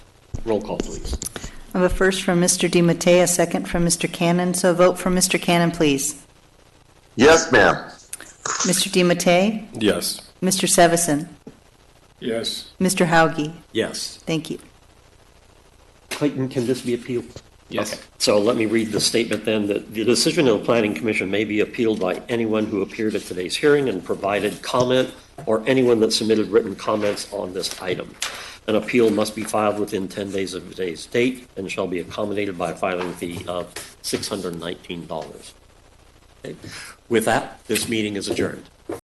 Roll call, please. I have a first from Mr. DiMattei, a second from Mr. Cannon, so a vote for Mr. Cannon, please. Yes, ma'am. Mr. DiMattei, Yes. Mr. Sevison, Yes. Mr. Hauge, Yes. thank you. Clayton, can this be appealed? Yes. So let me read the statement then, that the decision of the planning commission may be appealed by anyone who appeared at today's hearing and provided comment, or anyone that submitted written comments on this item. An appeal must be filed within 10 days of today's date and shall be accommodated by a filing fee of $619. Okay. With that, this meeting is adjourned.